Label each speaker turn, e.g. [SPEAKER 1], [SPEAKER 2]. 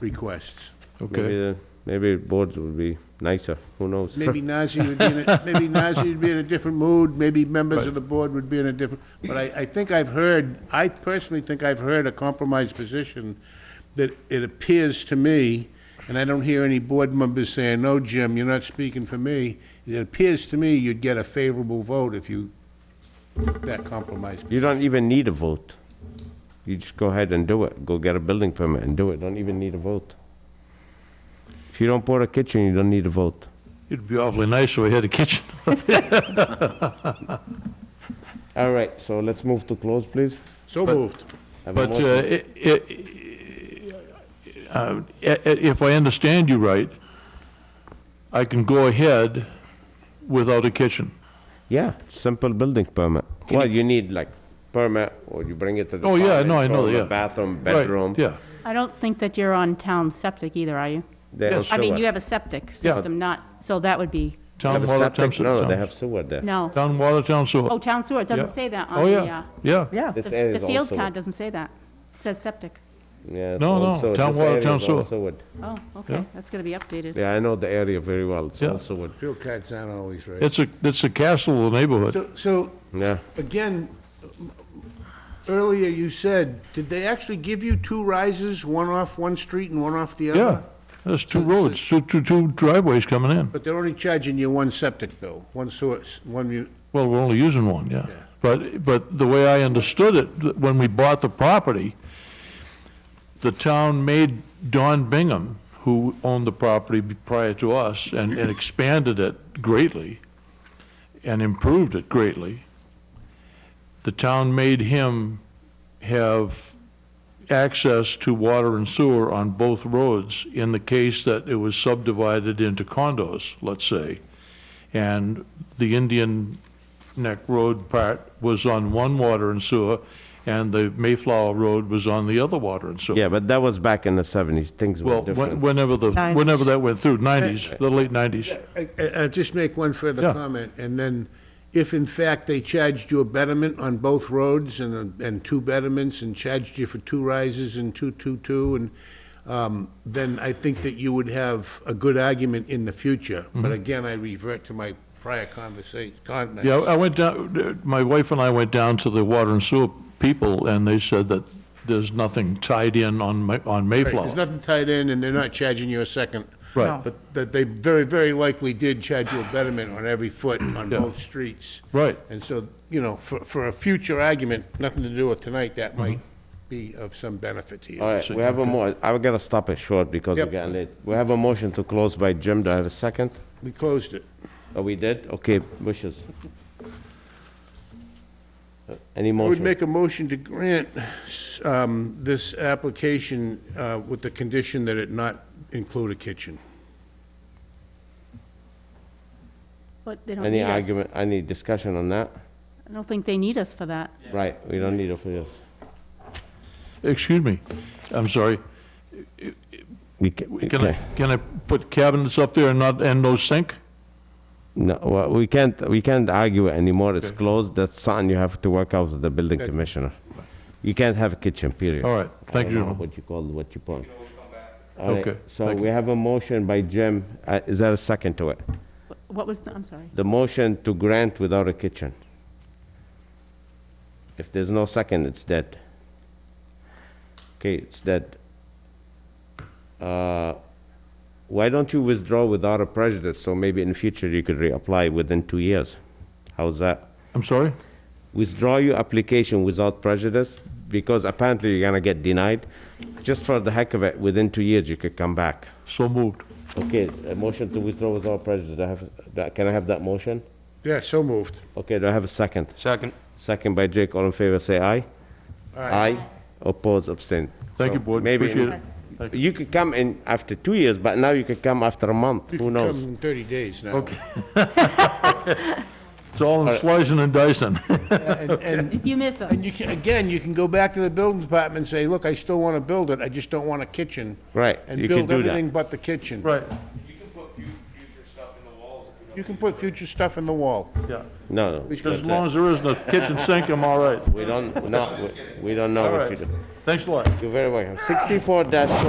[SPEAKER 1] requests.
[SPEAKER 2] Maybe,
[SPEAKER 3] okay.
[SPEAKER 2] the- maybe boards would be nicer, who knows?
[SPEAKER 1] Maybe Nazi would be in a, maybe Nazi would be in a different mood, maybe members of the board would be in a different, but I, I think I've heard, I personally think I've heard a compromise position that it appears to me, and I don't hear any board members saying, no, Jim, you're not speaking for me. It appears to me you'd get a favorable vote if you, took that compromise.
[SPEAKER 2] You don't even need a vote. You just go ahead and do it, go get a building permit and do it, don't even need a vote. If you don't put a kitchen, you don't need a vote.
[SPEAKER 3] It'd be awfully nice if we had a kitchen.
[SPEAKER 2] All right, so let's move to close, please.
[SPEAKER 1] So moved.
[SPEAKER 2] Have a
[SPEAKER 3] But uh,
[SPEAKER 2] motion.
[SPEAKER 3] i- i- uh, i- i- if I understand you right, I can go ahead without a kitchen.
[SPEAKER 2] Yeah, simple building permit. Well, you need like permit, or you bring it to the.
[SPEAKER 3] Oh, yeah, no, I know,
[SPEAKER 2] apartment,
[SPEAKER 3] yeah.
[SPEAKER 2] toilet, Bathroom,
[SPEAKER 3] Right,
[SPEAKER 2] bedroom.
[SPEAKER 3] Yeah,
[SPEAKER 4] I don't think that you're on town septic either, are you?
[SPEAKER 2] They have
[SPEAKER 3] Yes.
[SPEAKER 4] I mean,
[SPEAKER 2] sewer.
[SPEAKER 4] you have a septic system, not, so that would be,
[SPEAKER 3] town
[SPEAKER 2] Have a
[SPEAKER 3] water,
[SPEAKER 2] septic?
[SPEAKER 3] town, se-
[SPEAKER 2] No, they
[SPEAKER 3] town-
[SPEAKER 2] have sewer there.
[SPEAKER 4] no.
[SPEAKER 3] town water, town
[SPEAKER 4] Oh,
[SPEAKER 3] sewer.
[SPEAKER 4] town sewer, it
[SPEAKER 3] Yeah.
[SPEAKER 4] doesn't say that
[SPEAKER 3] Oh,
[SPEAKER 4] on the,
[SPEAKER 3] yeah,
[SPEAKER 4] uh,
[SPEAKER 3] yeah.
[SPEAKER 5] Yeah.
[SPEAKER 2] This area is
[SPEAKER 4] the the
[SPEAKER 2] all
[SPEAKER 4] field
[SPEAKER 2] sewer.
[SPEAKER 4] card doesn't say that. It says septic.
[SPEAKER 2] Yeah, it's
[SPEAKER 3] No,
[SPEAKER 2] all
[SPEAKER 3] no,
[SPEAKER 2] sewer.
[SPEAKER 3] town
[SPEAKER 2] This
[SPEAKER 3] water,
[SPEAKER 2] area
[SPEAKER 3] town
[SPEAKER 2] is all
[SPEAKER 3] sewer.
[SPEAKER 4] Oh,
[SPEAKER 3] Yeah.
[SPEAKER 4] okay, that's gonna be updated.
[SPEAKER 2] Yeah, I know the area very well, it's
[SPEAKER 3] Yeah.
[SPEAKER 2] all sewer.
[SPEAKER 1] Field cards aren't always right.
[SPEAKER 3] It's a, it's a castle of the neighborhood.
[SPEAKER 1] So, so
[SPEAKER 2] Yeah,
[SPEAKER 1] Again, earlier you said, did they actually give you two rises, one off one street and one off the other?
[SPEAKER 3] Yeah, there's two roads, two, two, two driveways coming in.
[SPEAKER 1] But they're only charging you one septic bill, one source, one, mu-
[SPEAKER 3] Well, we're only using one, yeah. But, but the way I understood it, th- when we bought the property, the town made Don Bingham, who owned the property b- prior to us, and, and expanded it greatly and improved it greatly. The town made him have access to water and sewer on both roads in the case that it was subdivided into condos, let's say. And the Indian Neck Road part was on one water and sewer, and the Mayflower Road was on the other water and sewer.
[SPEAKER 2] yeah, but that was back in the seventies, things were
[SPEAKER 3] Well,
[SPEAKER 2] different.
[SPEAKER 3] when- whenever the,
[SPEAKER 5] Nineties.
[SPEAKER 3] whenever that went through, 90s, the late 90s.
[SPEAKER 1] I- I- I'll just make one further
[SPEAKER 3] Yeah.
[SPEAKER 1] comment, and then if in fact they charged you a betterment on both roads and, and two betterments and charged you for two rises and two, two, two, and, um, then I think that you would have a good argument in the future.
[SPEAKER 3] Mm-hmm.
[SPEAKER 1] But again, I revert to my prior conversation, comments.
[SPEAKER 3] Yeah, I went down, my wife and I went down to the water and sewer people, and they said that there's nothing tied in on Ma- on
[SPEAKER 1] Right, There's
[SPEAKER 3] Mayflower.
[SPEAKER 1] nothing tied in, and they're not charging you a second.
[SPEAKER 3] Right.
[SPEAKER 1] But that they very, very likely did charge you a betterment on every foot on both streets.
[SPEAKER 3] Right.
[SPEAKER 1] And so, you know, for, for a future argument, nothing to do with tonight, that might be of some benefit to you.
[SPEAKER 2] Mm-hmm. All right, we have a mo, I've got to stop it short because we're
[SPEAKER 1] Yep.
[SPEAKER 2] getting late. We have a motion to close by Jim, do I have a second?
[SPEAKER 1] We closed it.
[SPEAKER 2] Oh, we did? Okay, wishes. Uh, Any
[SPEAKER 1] I would
[SPEAKER 2] motion?
[SPEAKER 1] make a motion to grant s- um, this application uh, with the condition that it not include a kitchen.
[SPEAKER 4] But they don't
[SPEAKER 2] Any
[SPEAKER 4] need us.
[SPEAKER 2] argument, any discussion on that?
[SPEAKER 4] I don't think they need us for that.
[SPEAKER 2] Right, we don't need it for this.
[SPEAKER 3] Excuse me, I'm sorry.
[SPEAKER 2] We can,
[SPEAKER 3] Can I, can I put cabinets up there and not, and no sink?
[SPEAKER 2] no, well, we can't, we can't argue it anymore, it's closed, that's something you have to work out with the building commissioner. You can't have a kitchen, period.
[SPEAKER 3] All right,
[SPEAKER 2] I
[SPEAKER 3] thank
[SPEAKER 2] don't
[SPEAKER 3] you.
[SPEAKER 2] know
[SPEAKER 3] gentlemen.
[SPEAKER 2] What you call, what you put. All right,
[SPEAKER 3] Okay,
[SPEAKER 2] So
[SPEAKER 3] thank
[SPEAKER 2] we have a motion by Jim, Uh, is there a second to it?
[SPEAKER 4] Wh- What was the, I'm sorry.
[SPEAKER 2] the motion to grant without a kitchen. If there's no second, it's dead. Okay, it's dead. Uh, Why don't you withdraw without a prejudice, so maybe in the future you could reapply within two years? How's that?
[SPEAKER 3] I'm sorry?
[SPEAKER 2] Withdraw your application without prejudice, because apparently you're gonna get denied. Just for the heck of it, within two years you could come back.
[SPEAKER 3] So moved.
[SPEAKER 2] Okay, a motion to withdraw without prejudice, I have, can I have that motion?
[SPEAKER 1] Yeah, so moved.
[SPEAKER 2] Okay, do I have a second? Second. Second by Jake, all in favor, say aye. Aye. Oppose, abstain.
[SPEAKER 3] Thank
[SPEAKER 2] So
[SPEAKER 3] you, board,
[SPEAKER 2] maybe in-
[SPEAKER 3] appreciate it. Thank
[SPEAKER 2] You could come in after two years, but now you could come after a month,
[SPEAKER 1] You
[SPEAKER 2] who
[SPEAKER 1] can
[SPEAKER 2] knows?
[SPEAKER 1] come in 30 days now. Okay.
[SPEAKER 3] It's all in slicing and dicing.
[SPEAKER 1] And
[SPEAKER 4] If you miss us,
[SPEAKER 1] And you can, again, you can go back to the building department and say, look, I still want to build it, I just don't want a kitchen.
[SPEAKER 2] Right,
[SPEAKER 1] And
[SPEAKER 2] you can
[SPEAKER 1] build
[SPEAKER 2] do that.
[SPEAKER 1] everything but the kitchen.
[SPEAKER 3] Right,
[SPEAKER 1] You can put future stuff in the wall.
[SPEAKER 3] yeah.
[SPEAKER 2] No, no,
[SPEAKER 3] As
[SPEAKER 2] that's
[SPEAKER 3] long
[SPEAKER 2] it.
[SPEAKER 3] as there isn't a kitchen sink, I'm all right.
[SPEAKER 2] we don't, no, we- we don't know
[SPEAKER 3] All
[SPEAKER 2] what you
[SPEAKER 3] right.
[SPEAKER 2] do.
[SPEAKER 3] Thanks a lot.
[SPEAKER 2] You're very welcome. Sixty-four dash